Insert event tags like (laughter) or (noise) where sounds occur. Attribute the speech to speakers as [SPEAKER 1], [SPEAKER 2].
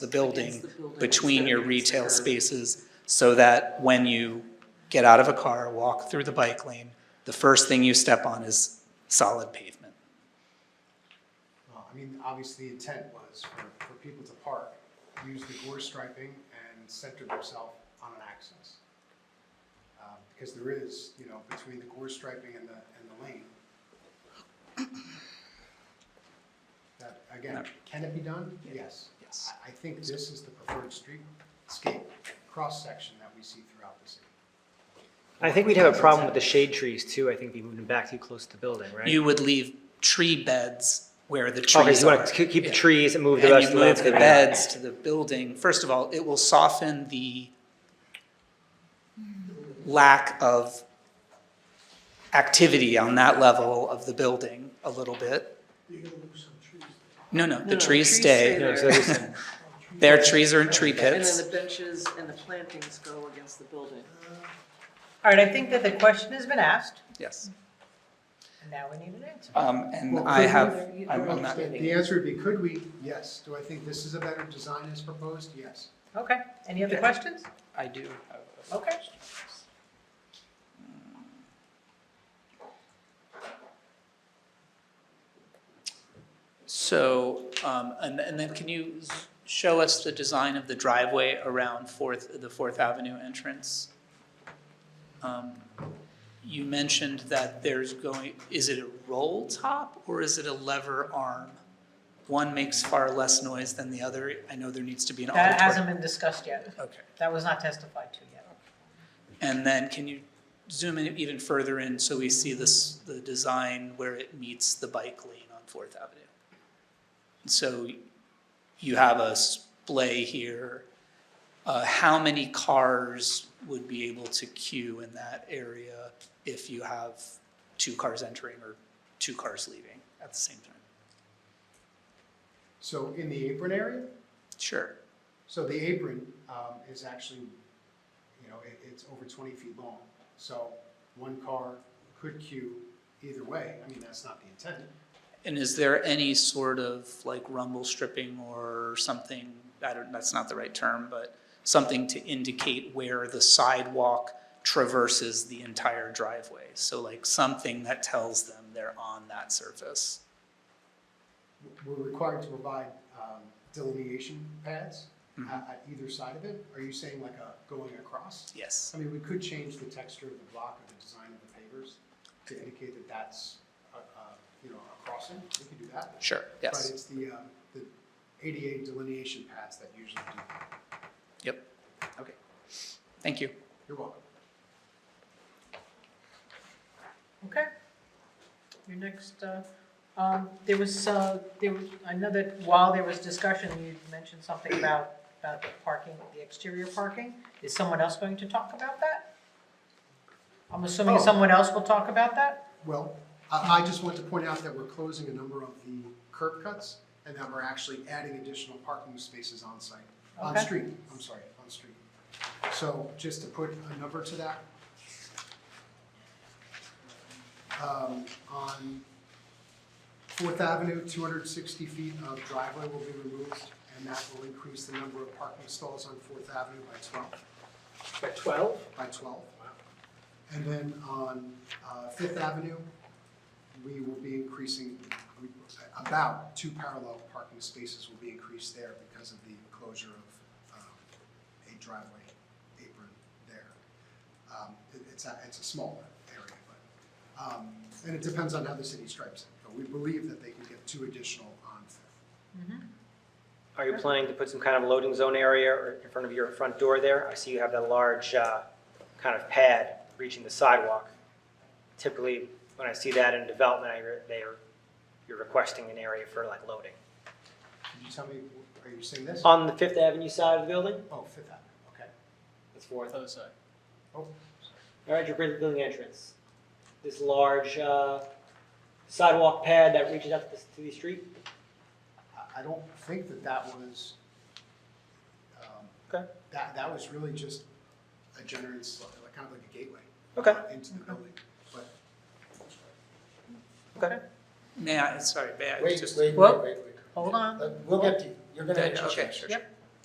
[SPEAKER 1] the building
[SPEAKER 2] the building.
[SPEAKER 1] between your retail spaces so that when you get out of a car, walk through the bike lane, the first thing you step on is solid pavement.
[SPEAKER 3] Well, Uh, I mean, obviously the intent was for, for people to park, use the gore striping and center themselves on an axis. Um, Because there is, you know, between the gore striping and the, and the lane. That, again, can it be done? Yes.
[SPEAKER 1] Yes.
[SPEAKER 3] I, I think this is the preferred streetscape cross-section that we see throughout the city.
[SPEAKER 4] I think we'd have a problem with the shade trees too. I think if we moved them back too close to the building, right?
[SPEAKER 1] You would leave tree beds where the
[SPEAKER 4] Okay,
[SPEAKER 1] trees
[SPEAKER 4] so you
[SPEAKER 1] are.
[SPEAKER 4] want to keep the
[SPEAKER 1] Yeah.
[SPEAKER 4] trees and move the
[SPEAKER 1] And
[SPEAKER 4] rest
[SPEAKER 1] you
[SPEAKER 4] of the
[SPEAKER 1] move the
[SPEAKER 4] landscaping.
[SPEAKER 1] beds to the building, first of all, it will soften the lack of activity on that level of the building a little bit. No, no, the
[SPEAKER 2] no,
[SPEAKER 1] trees
[SPEAKER 2] trees
[SPEAKER 1] stay.
[SPEAKER 2] stay.
[SPEAKER 4] Yeah, so it's-
[SPEAKER 1] (laughs) Their trees are in tree
[SPEAKER 2] And then
[SPEAKER 1] pits.
[SPEAKER 2] the benches and the plantings go against the building.
[SPEAKER 5] All right, I think that the question has been asked,
[SPEAKER 1] Yes.
[SPEAKER 5] and now we need an answer.
[SPEAKER 1] Um, and
[SPEAKER 3] Well,
[SPEAKER 1] I
[SPEAKER 3] could we-
[SPEAKER 1] have, I'm I'm not,
[SPEAKER 3] The the answer would be, could we? Yes. Do I think this is a better design as proposed? Yes.
[SPEAKER 5] Okay, any other
[SPEAKER 1] Yeah.
[SPEAKER 5] questions?
[SPEAKER 1] I do have a
[SPEAKER 5] Okay.
[SPEAKER 1] So, um, and, and then can you s- show us the design of the driveway around Fourth, the Fourth Avenue entrance? Um, You mentioned that there's going, is it a roll top or is it a lever arm? One makes far less noise than the other. I know there needs to be an
[SPEAKER 5] That hasn't
[SPEAKER 1] auditorium.
[SPEAKER 5] been discussed yet.
[SPEAKER 1] Okay.
[SPEAKER 5] That was not testified to yet.
[SPEAKER 1] And then can you zoom in even further in so we see this, the design where it meets the bike lane on Fourth Avenue? So you have a splay here. Uh, how many cars would be able to queue in that area if you have two cars entering or two cars leaving at the same time?
[SPEAKER 3] So in the apron area,
[SPEAKER 1] Sure.
[SPEAKER 3] So the apron um, is actually, you know, it, it's over 20 feet long. So one car could queue either way. I mean, that's not the intent.
[SPEAKER 1] And is there any sort of like rumble stripping or something, I don't, that's not the right term, but something to indicate where the sidewalk traverses the entire driveway? So like something that tells them they're on that surface?
[SPEAKER 3] We're required to provide um, delineation pads
[SPEAKER 1] Mhm.
[SPEAKER 3] at, at either side of it. Are you saying like a going across?
[SPEAKER 1] Yes.
[SPEAKER 3] I mean, we could change the texture of the block or the design of the pavers to indicate that that's, a, a, you know, a crossing. We could do that.
[SPEAKER 1] Sure,
[SPEAKER 3] But
[SPEAKER 1] yes,
[SPEAKER 3] it's the, um, the ADA delineation pads that usually do. that.
[SPEAKER 1] yep. Okay. Thank you.
[SPEAKER 3] You're welcome.
[SPEAKER 5] Okay. Your next, uh, um, there was, uh, there was, I know that while there was discussion, you mentioned something about, about the parking, the exterior parking. Is someone else going to talk about that? I'm assuming
[SPEAKER 3] Oh.
[SPEAKER 5] someone else will talk about that?
[SPEAKER 3] Well, I, I just want to point out that we're closing a number of the curb cuts and that we're actually adding additional parking spaces on site, on
[SPEAKER 5] Okay.
[SPEAKER 3] street, I'm sorry, on street. So just to put a number to that. Um, on Fourth Avenue, two hundred and sixty feet of driveway will be removed and that will increase the number of parking stalls on Fourth Avenue by twelve
[SPEAKER 5] By twelve?
[SPEAKER 3] by twelve. And then on uh, Fifth Avenue, we will be increasing, we- about two parallel parking spaces will be increased there because of the closure of um, a driveway apron there. Um, it- It's a, it's a smaller area, but, um, and it depends on how the city stripes it. But we believe that they can get two additional on Fifth.
[SPEAKER 4] Are you planning to put some kind of loading zone area or in front of your front door there? I see you have that large uh, kind of pad reaching the sidewalk. Typically, when I see that in development, I re- they are, you're requesting an area for like loading.
[SPEAKER 3] Could you tell me, are you seeing this?
[SPEAKER 4] On the Fifth Avenue side of the building?
[SPEAKER 3] Oh, Fifth Avenue, okay.
[SPEAKER 4] That's fourth.
[SPEAKER 1] Oh, sorry.
[SPEAKER 3] Oh,
[SPEAKER 4] All right, your bridge building entrance. This large uh, sidewalk pad that reaches out to the- to the street?
[SPEAKER 3] I- I don't think that that was, um,
[SPEAKER 4] Okay,
[SPEAKER 3] that, that was really just a generous, like, kind of like a gateway.
[SPEAKER 4] okay,
[SPEAKER 3] Into the building, but.
[SPEAKER 4] okay.
[SPEAKER 1] May I, sorry, may I
[SPEAKER 6] Wait,
[SPEAKER 1] just?
[SPEAKER 6] wait, wait,
[SPEAKER 5] Well-
[SPEAKER 6] wait, wait.
[SPEAKER 5] Hold on.
[SPEAKER 6] Let- We'll get to you. You're gonna
[SPEAKER 1] Yeah,
[SPEAKER 6] have
[SPEAKER 1] yeah,
[SPEAKER 6] to
[SPEAKER 1] Okay,
[SPEAKER 6] change.
[SPEAKER 1] sure, sure.
[SPEAKER 5] Yep.